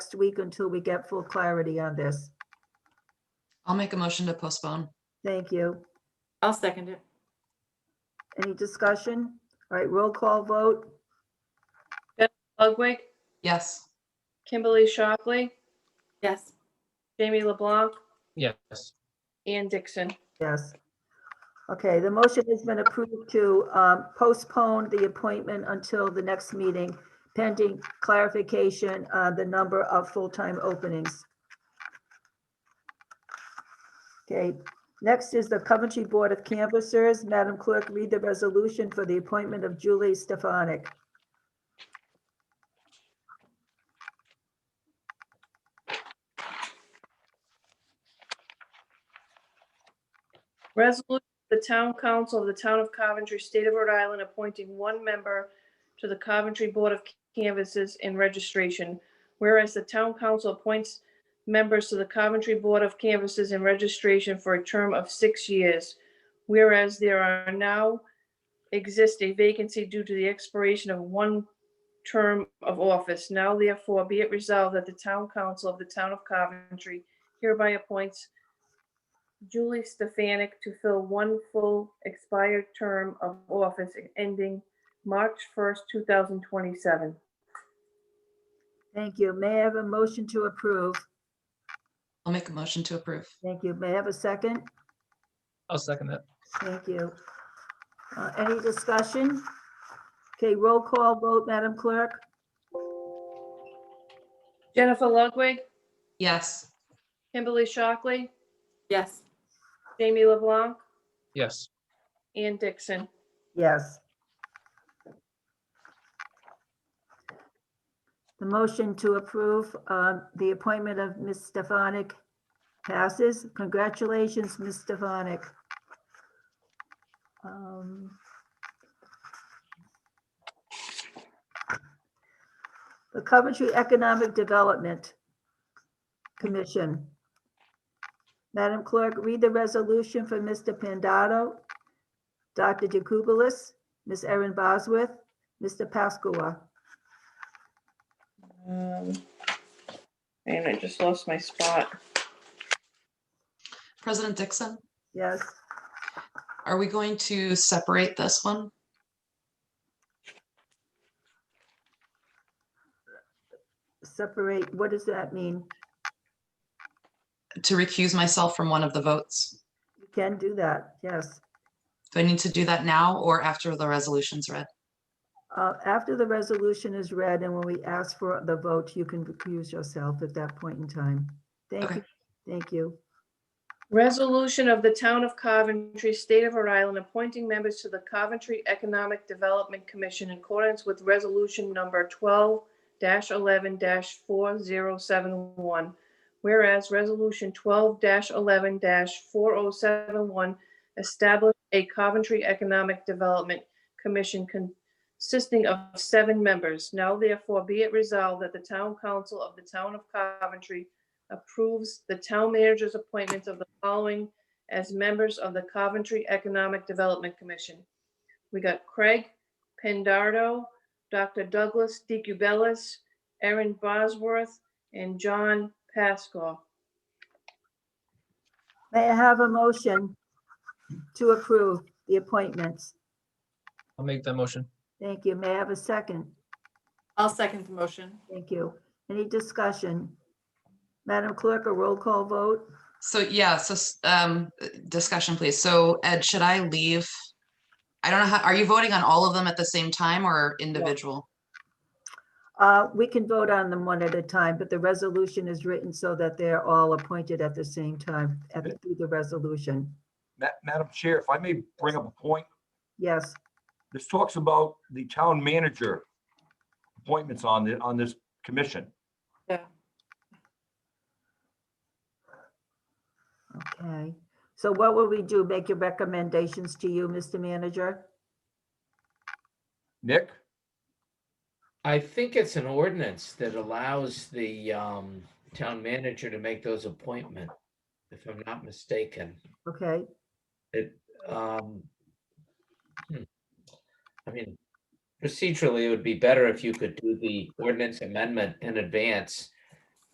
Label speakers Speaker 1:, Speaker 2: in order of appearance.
Speaker 1: next week until we get full clarity on this.
Speaker 2: I'll make a motion to postpone.
Speaker 1: Thank you.
Speaker 3: I'll second it.
Speaker 1: Any discussion? All right, roll call vote.
Speaker 4: Ludwig,
Speaker 2: Yes.
Speaker 4: Kimberly Shockley,
Speaker 3: Yes.
Speaker 4: Jamie LeBlanc,
Speaker 5: Yes,
Speaker 4: and Dixon.
Speaker 1: Yes. Okay, the motion has been approved to um, postpone the appointment until the next meeting pending clarification on the number of full-time openings. Okay, next is the Coventry Board of Canvassers. Madam Clerk, read the resolution for the appointment of Julie Stefanik.
Speaker 4: Resolution, of the Town Council of the Town of Coventry, State of Rhode Island, appointing one member to the Coventry Board of Canvases and Registration. Whereas the Town Council appoints members to the Coventry Board of Canvases and Registration for a term of six years. Whereas there are now exists a vacancy due to the expiration of one term of office. Now therefore be it resolved that the Town Council of the Town of Coventry hereby appoints Julie Stefanik to fill one full expired term of office ending March 1st, 2027.
Speaker 1: Thank you. May I have a motion to approve?
Speaker 2: I'll make a motion to approve.
Speaker 1: Thank you. May I have a second?
Speaker 5: I'll second that.
Speaker 1: Thank you. Uh, Any discussion? Okay, roll call vote, Madam Clerk?
Speaker 4: Jennifer Ludwig,
Speaker 2: Yes.
Speaker 4: Kimberly Shockley,
Speaker 3: Yes.
Speaker 4: Jamie LeBlanc,
Speaker 5: Yes,
Speaker 4: and Dixon.
Speaker 1: Yes. The motion to approve um, the appointment of Ms. Stefanik passes. Congratulations, Ms. Stefanik. Um, The Coventry Economic Development Commission. Madam Clerk, read the resolution for Mr. Pandato Dr. DeKubelis, Ms. Erin Bosworth, Mr. Pascua.
Speaker 4: Um, And I just lost my spot.
Speaker 2: President Dixon,
Speaker 1: Yes,
Speaker 2: are we going to separate this one?
Speaker 1: separate, what does that mean?
Speaker 2: To recuse myself from one of the votes?
Speaker 1: You can do that, yes.
Speaker 2: Do I need to do that now or after the resolution's read?
Speaker 1: Uh, After the resolution is read and when we ask for the vote, you can recuse yourself at that point in time. Thank
Speaker 2: Okay.
Speaker 1: you, thank you.
Speaker 4: Resolution of the Town of Coventry, State of Rhode Island, appointing members to the Coventry Economic Development Commission in accordance with Resolution Number 12-11-4071. Whereas Resolution 12-11-4071 established a Coventry Economic Development Commission consisting of seven members. Now therefore be it resolved that the Town Council of the Town of Coventry approves the town manager's appointments of the following as members of the Coventry Economic Development Commission. We got Craig Pendardo, Dr. Douglas DeCubelis, Erin Bosworth, and John Pascal.
Speaker 1: May I have a motion to approve the appointments?
Speaker 5: I'll make that motion.
Speaker 1: Thank you. May I have a second?
Speaker 3: I'll second the motion.
Speaker 1: Thank you. Any discussion? Madam Clerk, a roll call vote?
Speaker 2: So yeah, so s- um, uh, discussion, please. So Ed, should I leave? I don't know how, are you voting on all of them at the same time or individual?
Speaker 1: Uh, We can vote on them one at a time, but the resolution is written so that they're all appointed at the same time at the- through the resolution.
Speaker 6: Ma- Madam Chair, if I may bring up a point,
Speaker 1: Yes,
Speaker 6: this talks about the town manager appointments on the, on this commission.
Speaker 1: okay. So what will we do? Make your recommendations to you, Mr. Manager?
Speaker 6: Nick,
Speaker 7: I think it's an ordinance that allows the um town manager to make those appointments, if I'm not mistaken.
Speaker 1: Okay,
Speaker 7: It um. hmm, I mean, procedurally, it would be better if you could do the ordinance amendment in advance